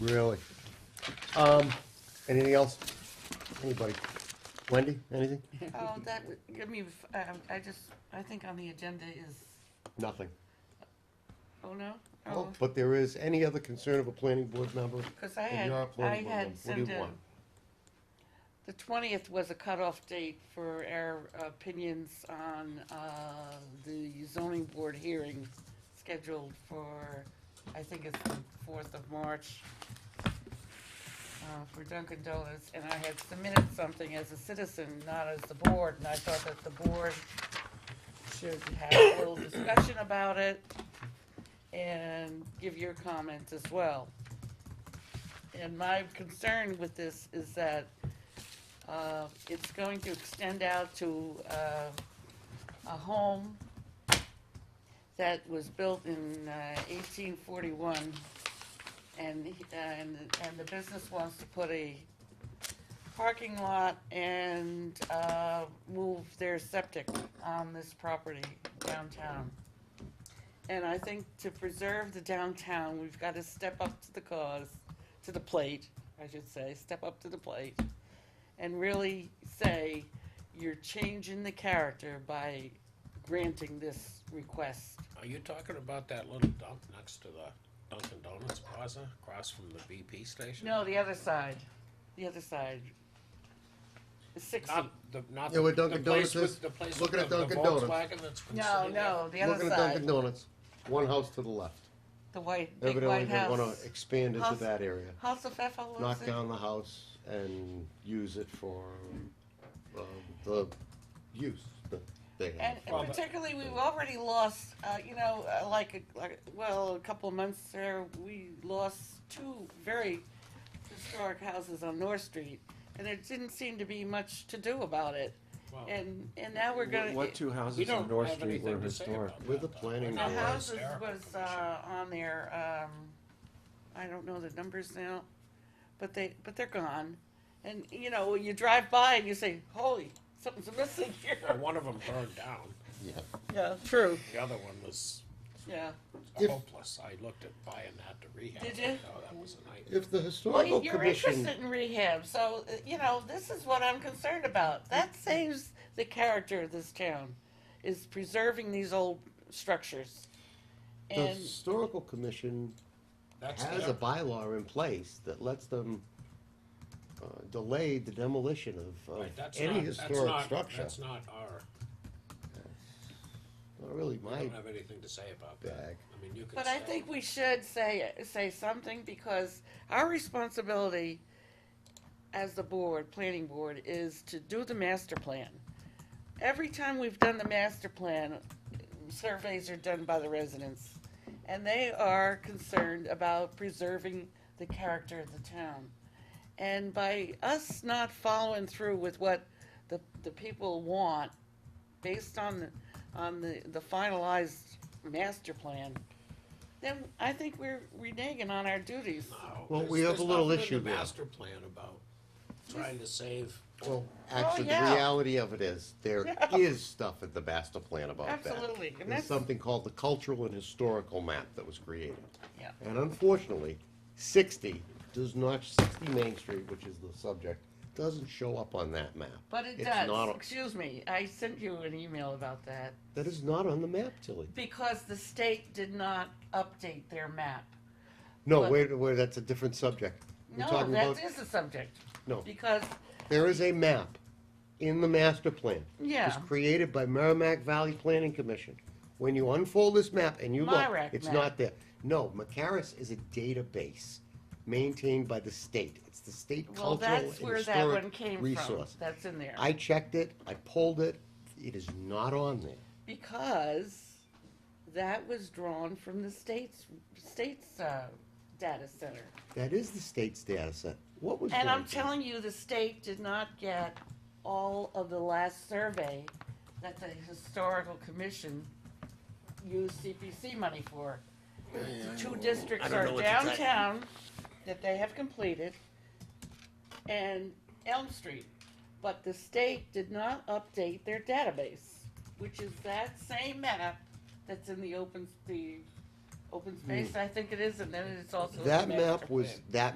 Really? Um, anything else? Anybody? Wendy, anything? Oh, that, would give me, f- um, I just, I think on the agenda is, Nothing. oh no? Oh, But there is any other concern of a planning board member? because I And had, you're a planning I board member. had What do you sent a, want? the twentieth was a cutoff date for our opinions on, uh, the zoning board hearing scheduled for, I think it's the fourth of March, uh, for Dunkin' Donuts, and I had submitted something as a citizen, not as the board, and I thought that the board should have a little discussion about it and give your comments as well. And my concern with this is that uh, it's going to extend out to uh, a home that was built in uh, 1841, and, he- uh, and, and the business wants to put a parking lot and uh, move their septic on this property downtown. And I think to preserve the downtown, we've got to step up to the cause, to the plate, I should say, step up to the plate, and really say, you're changing the character by granting this request. Are you talking about that little dump next to the Dunkin' Donuts Plaza, across from the BP station? No, the other side, the other side. The sixty. Not the, not Yeah, the, where the Dunkin' place Donuts is. with, the place with Looking the at the Dunkin' Donuts. Volkswagen that's been No, sitting there? no, the other Looking at Dunkin' side, Donuts, one house to the left. the white, big Evidently, white they wanna house. expand into House- that area. House of F L O Knock C. down the house and use it for, um, the use that they have. And and particularly, we've already lost, uh, you know, uh, like, a- like, well, a couple of months there, we lost two very historic houses on North Street. And there didn't seem to be much to do about it. Well, And, and now we're gonna. What two We houses don't on North have Street anything were to say historic? about We're that, the though. planning The board. houses Hysterical was, condition. uh, on there, um, I don't know the numbers now, but they, but they're gone. And, you know, you drive by and you say, holy, something's missing Well, here. One of them burned down, Yeah. Yeah, true. the other one was Yeah. If- hopeless, I looked at buying that to rehab. Did it. you? Oh, that was a nightmare. If the Well, historical you- you're commission, interested in rehab, so, uh, you know, this is what I'm concerned about. That saves the character of this town, is preserving these old structures. the And, historical commission That's has their, a bylaw in place that lets them uh, delay the demolition of, of right, that's any not, that's historic not, structure. that's not our, Not really we my don't have anything to say about that. bag. I mean, you could but I say- think we should say, say something because our responsibility as the board, planning board, is to do the master plan. Every time we've done the master plan, surveys are done by the residents. And they are concerned about preserving the character of the town. And by us not following through with what the, the people want, based on, the- on the, the finalized master plan, then I think we're reneging on our duties. No, Well, there's- we have there's a little nothing in issue the there. Master plan about trying to save Well, actually, Oh, yeah. the reality of it is there is Yeah. stuff in the master plan about Absolutely, that. and There's that's- something called the cultural and historical map that was created, Yeah. and unfortunately, sixty does not sixty Main Street, which is the subject, doesn't show up on that map. But it It's not does, a- excuse me, I sent you an email about that, That is not on the map, Tilly. because the state did not update their map. No, But- wait, wait, that's a different subject. We're No, talking that about- is a subject, No, because, there is a map in the master plan. It Yeah. was created by Merrimack Valley Planning Commission. When you unfold this map and you look, Myrick it's map. not there. No, Macaris is a database maintained by the state. It's the state well, cultural and that's where that one historic came from, resource. that's in there. I checked it, I pulled it, it is not on there. Because that was drawn from the state's, state's, uh, data center. That is the state's data set. What was And I'm going to- telling you, the state did not get all of the last survey that the historical commission used CPC money for. The Two districts are downtown that they have completed and Elm Street. But the state did not update their database, which is that same map that's in the open, the open space, I think it is, and then it's also. in the That master Hmm. map was, plan. that